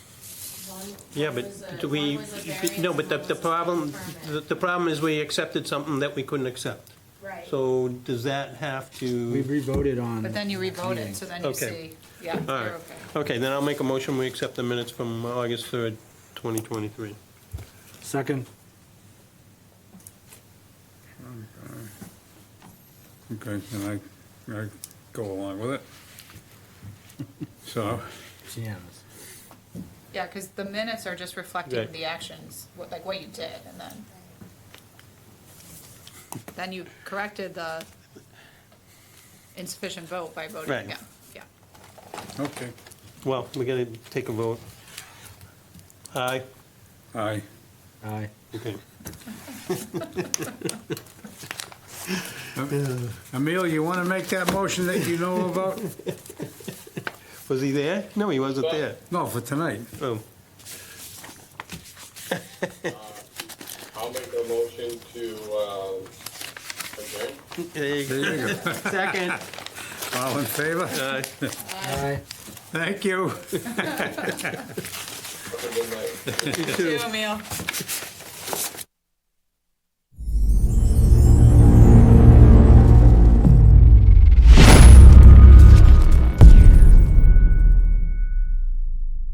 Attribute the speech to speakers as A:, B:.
A: One-
B: Yeah,
A: one was a-
B: but do we,
A: one was a
B: no,
A: variance and one was
B: but the, the problem,
A: a
B: the
A: permit.
B: the problem is we accepted something that we couldn't accept.
A: Right.
B: So does that have
C: We
B: to,
C: revoted on.
D: But then you revote it, so then you
B: Okay.
D: see, yeah,
B: all
D: you're
B: right.
D: okay.
B: Okay, then I'll make a motion, we accept the minutes from August 3rd, 2023.
C: Second,
E: Okay, and I, I go along with it. So,
C: it's unanimous.
D: Yeah, because the minutes are just reflecting
B: Right.
D: the actions, what- like what you did, and then. Then you corrected the insufficient vote by
B: Right.
D: voting, yeah, yeah.
E: okay,
B: Well, we gotta take a vote. Aye?
E: aye,
C: Aye.
B: Okay.
E: Emil, you want to make that motion that you know about?
B: Was he there? No, he wasn't there.
E: No, for tonight.
B: Oh,
F: I'll make a motion to, um, adjourn.
B: there you go.
E: There you go.
B: Second.
E: All in favor?
B: Aye.
C: Aye.
E: Thank you.
F: Have a good night.
B: You too.
D: Emil.